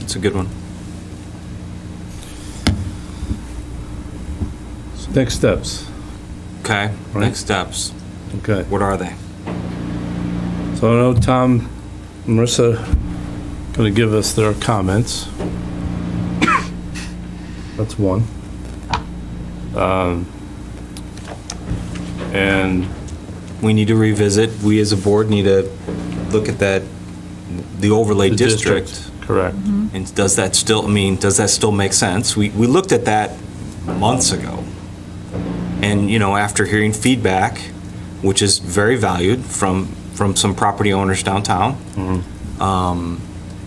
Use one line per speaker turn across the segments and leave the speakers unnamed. It's a good one.
Next steps,
Okay,
Right.
next steps,
okay.
what are they?
So I know Tom, Marissa going to give us their comments. That's one. Um, And
We need to revisit, we as a board need to look at that, the overlay
the
district. Mm-hmm.
district, correct.
And does that still, I mean, does that still make sense? We, we looked at that months ago. And, you know, after hearing feedback, which is very valued from, from some property owners downtown, um,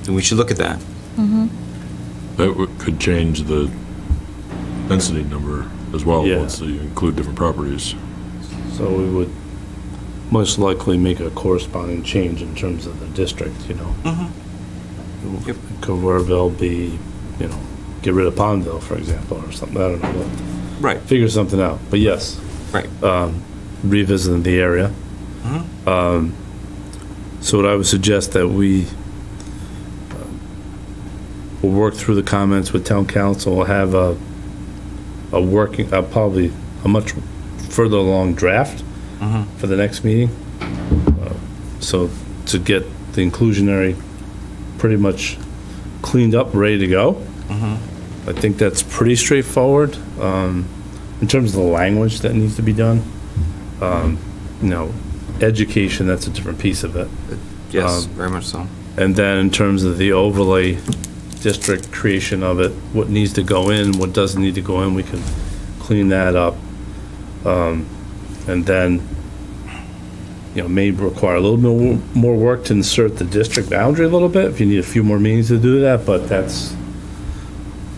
we should look at that.
That would- could change the density number as well,
Yeah.
once you include different properties.
So we would most likely make a corresponding change in terms of the district, you know?
Yep.
Could Warville be, you know, get rid of Pondville, for example, or something, I don't know, We'll
Right,
figure something out, but yes.
right.
revisiting the area. Um, So what I would suggest that we uh, will work through the comments with town council, we'll have a, a working, uh, probably a much further along draft for the next meeting. Uh, So to get the inclusionary pretty much cleaned up, ready to go. I think that's pretty straightforward. Um, In terms of the language that needs to be done, you know, education, that's a different piece of it.
Yes,
um,
very much so.
And then in terms of the overlay district creation of it, what needs to go in, what doesn't need to go in, we can clean that up. Um, And then, you know, may require a little bit wo- more work to insert the district boundary a little bit, if you need a few more meetings to do that, but that's,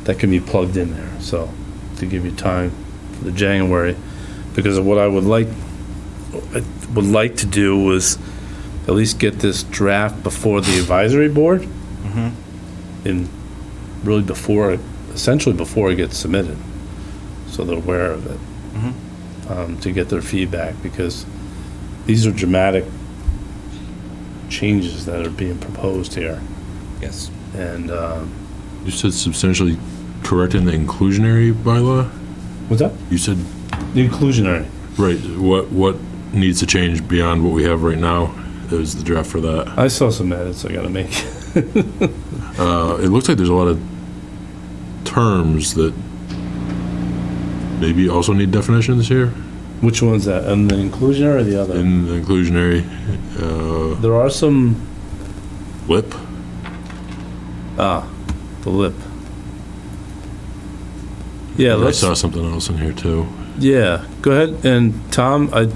that can be plugged in there, so, to give you time for the January. Because what I would like, I would like to do was at least get this draft before the advisory board. And really before, essentially before it gets submitted, so they're aware of it. Um, to get their feedback, because these are dramatic changes that are being proposed here.
Yes.
And, um,
You said substantially correct in the inclusionary bylaw?
what's that?
You said,
The inclusionary.
right, what, what needs to change beyond what we have right now is the draft for that.
I saw some edits I gotta make.
Uh, It looks like there's a lot of terms that maybe also need definitions here
Which one's that? And the inclusionary or the other?
in the inclusionary. uh,
There are some,
LIP,
ah, the lip. Yeah,
I
let's.
saw something else in here too.
Yeah, go ahead. And Tom, I,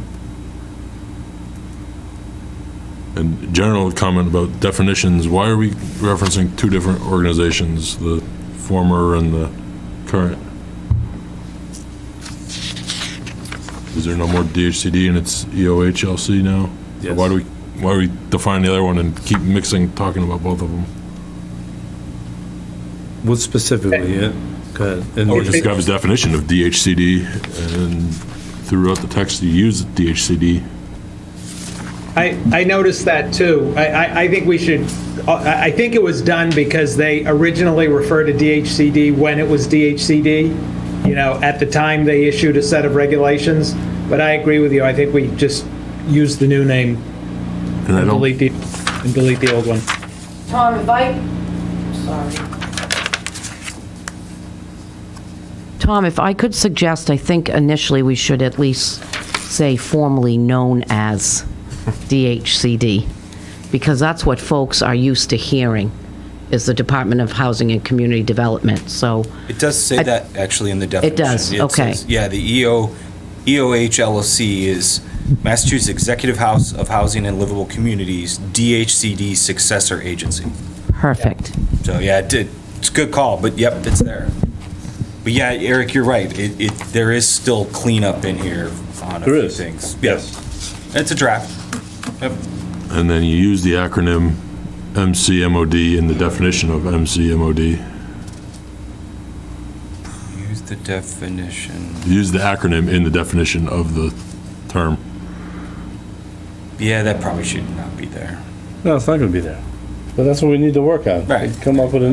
And general comment about definitions, why are we referencing two different organizations, the former and the current? Is there no more DHCD and it's E EOHLC now? Or Why do we, why do we define the other one and keep mixing, talking about both of them?
what specifically? Yeah, go ahead. And
Or Oh, just grab his definition of DHCD and throughout the text you use DHCD.
I, I noticed that too. I, I, I think we should, uh, I, I think it was done because they originally referred to DHCD when it was DHCD. You know, at the time they issued a set of regulations, but I agree with you. I think we just use the new name
And I
and
don't,
delete the, and delete the old one.
Tom, if I, sorry. Tom, if I could suggest, I think initially we should at least say formally known as DHCD, because that's what folks are used to hearing, is the Department of Housing and Community Development. So,
It does say
I-
that actually in the definition.
does, okay.
says- Yeah, the E EO, EOH LLC is Massachusetts Executive House of Housing and Livable Communities, DHCD successor agency.
perfect.
So, yeah, it did, it's a good call, but yep, it's there. But yeah, Eric, you're right. It, it, there is still cleanup in here on a
There
few
is.
things. Yes. It's a draft. Yep.
and then you use the acronym MCMOD in the definition of MCMOD.
Use the definition.
use the acronym in the definition of the term.
Yeah, that probably should not be there.
No, it's not gonna be there. But that's what we need to work on.
Right.
Come up with a